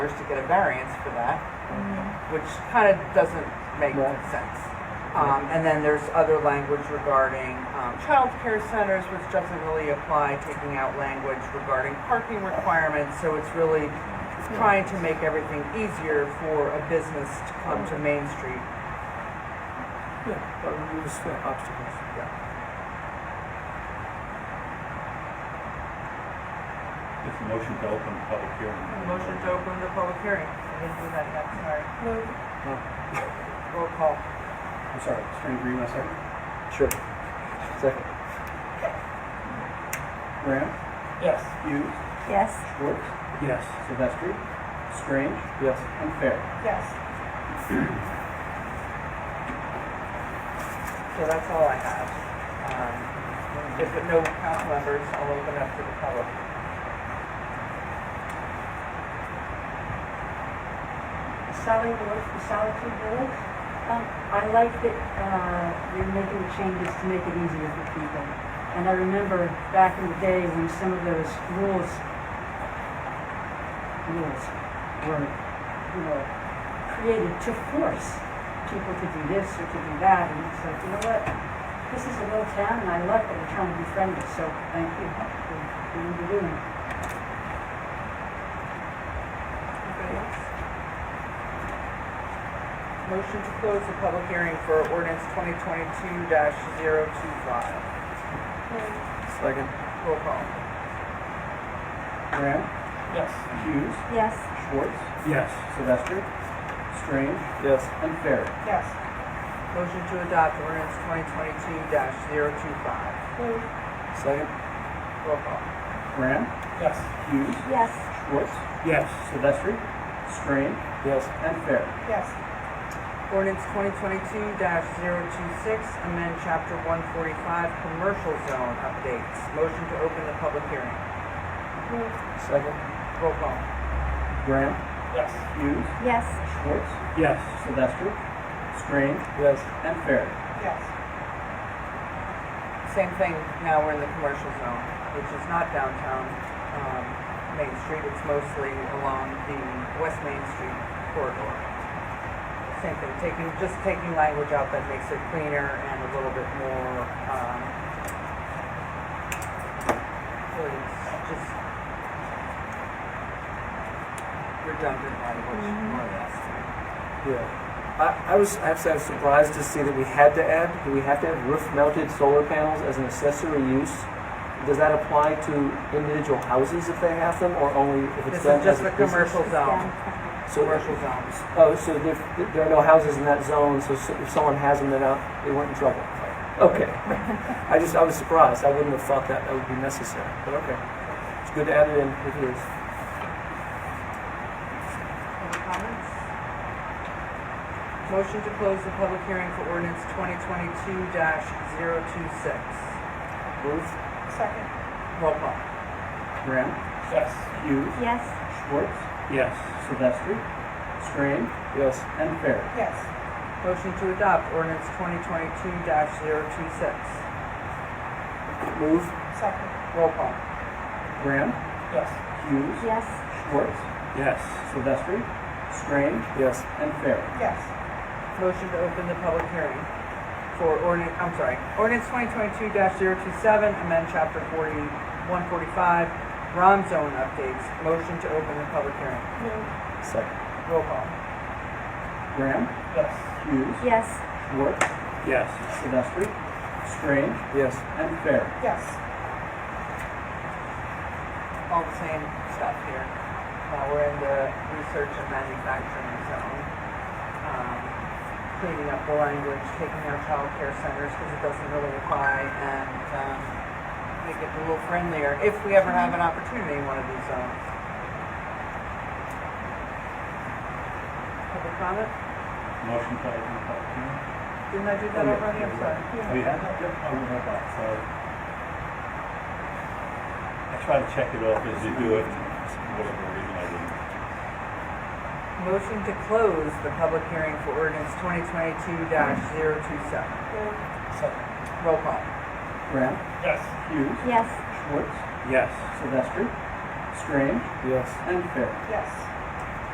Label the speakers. Speaker 1: dollars to get a variance for that, which kind of doesn't make
Speaker 2: Right.
Speaker 1: sense. Um, and then there's other language regarding um, child care centers, which doesn't really apply, taking out language regarding parking requirements. So it's really it's trying to make everything easier for a business to come to Main Street.
Speaker 2: Yeah, but removes the obstacles.
Speaker 3: It's a motion to open the public hearing.
Speaker 1: Motion to open the public hearing. I didn't do that yet, sorry.
Speaker 2: No,
Speaker 1: Roll call.
Speaker 3: I'm sorry, String Green, my second.
Speaker 2: sure. Second.
Speaker 3: Graham,
Speaker 1: Yes.
Speaker 3: Hughes,
Speaker 4: Yes.
Speaker 3: Schwartz,
Speaker 2: Yes.
Speaker 3: Silvestri, Strange,
Speaker 2: Yes.
Speaker 3: and Fair.
Speaker 4: Yes.
Speaker 1: So that's all I have. Um, If there are no council members, I'll open up to the public.
Speaker 5: Sally Ward from Solitude Village. Um, I like that, uh, you're making the changes to make it easier for people. And I remember back in the day when some of those rules, rules were, you know, created to force people to do this or to do that. And it's like, you know what? This is a little town and I love that we're trying to be friendly, so thank you for what you're doing.
Speaker 1: Anybody else? Motion to close the public hearing for ordinance twenty twenty-two 25
Speaker 2: Second.
Speaker 1: Roll call.
Speaker 3: Graham,
Speaker 2: Yes.
Speaker 3: Hughes,
Speaker 4: Yes.
Speaker 3: Schwartz,
Speaker 2: Yes.
Speaker 3: Silvestri, Strange,
Speaker 2: Yes.
Speaker 3: and Fair.
Speaker 4: Yes.
Speaker 1: Motion to adopt ordinance twenty twenty-two 25
Speaker 2: Second.
Speaker 1: Roll call.
Speaker 3: Graham,
Speaker 2: Yes.
Speaker 3: Hughes,
Speaker 4: Yes.
Speaker 3: Schwartz,
Speaker 2: Yes.
Speaker 3: Silvestri, Strange,
Speaker 2: Yes.
Speaker 3: and Fair.
Speaker 4: Yes.
Speaker 1: Ordinance twenty twenty-two 26 amend chapter one forty-five, commercial zone updates. Motion to open the public hearing.
Speaker 2: Second.
Speaker 1: Roll call.
Speaker 3: Graham,
Speaker 2: Yes.
Speaker 3: Hughes,
Speaker 4: Yes.
Speaker 3: Schwartz,
Speaker 2: Yes.
Speaker 3: Silvestri, Strange,
Speaker 2: Yes.
Speaker 3: and Fair.
Speaker 4: Yes.
Speaker 1: Same thing, now we're in the commercial zone, which is not downtown, um, Main Street, it's mostly along the West Main Street corridor. Same thing, taking, just taking language out that makes it cleaner and a little bit more, um, really it's just redundant language, more or less.
Speaker 2: Yeah. I, I was actually I was surprised to see that we had to add. Do we have to have roof-mounted solar panels as an accessory use? Does that apply to individual houses if they have them, or only if it's
Speaker 1: This
Speaker 2: done
Speaker 1: is just
Speaker 2: as a
Speaker 1: the
Speaker 2: business?
Speaker 1: commercial zone,
Speaker 2: So
Speaker 1: commercial zones.
Speaker 2: Oh, so there, there are no houses in that zone, so s- if someone has them, they're not, they weren't in trouble. Okay. I just, I was surprised. I wouldn't have thought that that would be necessary, but okay. It's good to add it in if it is.
Speaker 1: Any comments? Motion to close the public hearing for ordinance twenty twenty-two 26
Speaker 3: Ruth,
Speaker 4: Second.
Speaker 1: Roll call.
Speaker 3: Graham,
Speaker 2: Yes.
Speaker 3: Hughes,
Speaker 4: Yes.
Speaker 3: Schwartz,
Speaker 2: Yes.
Speaker 3: Silvestri, Strange,
Speaker 2: Yes.
Speaker 3: and Fair.
Speaker 4: Yes.
Speaker 1: Motion to adopt ordinance twenty twenty-two 26
Speaker 2: Move.
Speaker 4: Second.
Speaker 1: Roll call.
Speaker 3: Graham,
Speaker 2: Yes.
Speaker 3: Hughes,
Speaker 4: Yes.
Speaker 3: Schwartz,
Speaker 2: Yes.
Speaker 3: Silvestri, Strange,
Speaker 2: Yes.
Speaker 3: and Fair.
Speaker 4: Yes.
Speaker 1: Motion to open the public hearing for ordinance, I'm sorry, ordinance twenty twenty-two 27 amend chapter forty, one forty-five, ROM zone updates. Motion to open the public hearing.
Speaker 2: Second.
Speaker 1: Roll call.
Speaker 3: Graham,
Speaker 2: Yes.
Speaker 3: Hughes,
Speaker 4: Yes.
Speaker 3: Schwartz,
Speaker 2: Yes.
Speaker 3: Silvestri, Strange,
Speaker 2: Yes.
Speaker 3: and Fair.
Speaker 4: Yes.
Speaker 1: all the same stuff here. Uh, we're in the research and manufacturing zone. Um, cleaning up the language, taking out childcare centers because it doesn't really apply, and um, make it a little friendlier if we ever have an opportunity in one of these zones. Public comment?
Speaker 3: Motion to open the public hearing.
Speaker 1: Didn't I do that already? I'm sorry.
Speaker 3: Oh, you have? Yep, I would have that, so.
Speaker 6: I try to check it off as you do it, and whatever reason I didn't.
Speaker 1: Motion to close the public hearing for ordinance 2022-027.
Speaker 2: Second.
Speaker 1: Roll call.
Speaker 3: Graham,
Speaker 2: Yes.
Speaker 3: Hughes,
Speaker 4: Yes.
Speaker 3: Schwartz,
Speaker 2: Yes.
Speaker 3: Silvestri, Strange,
Speaker 2: Yes.
Speaker 3: and Fair.
Speaker 4: Yes.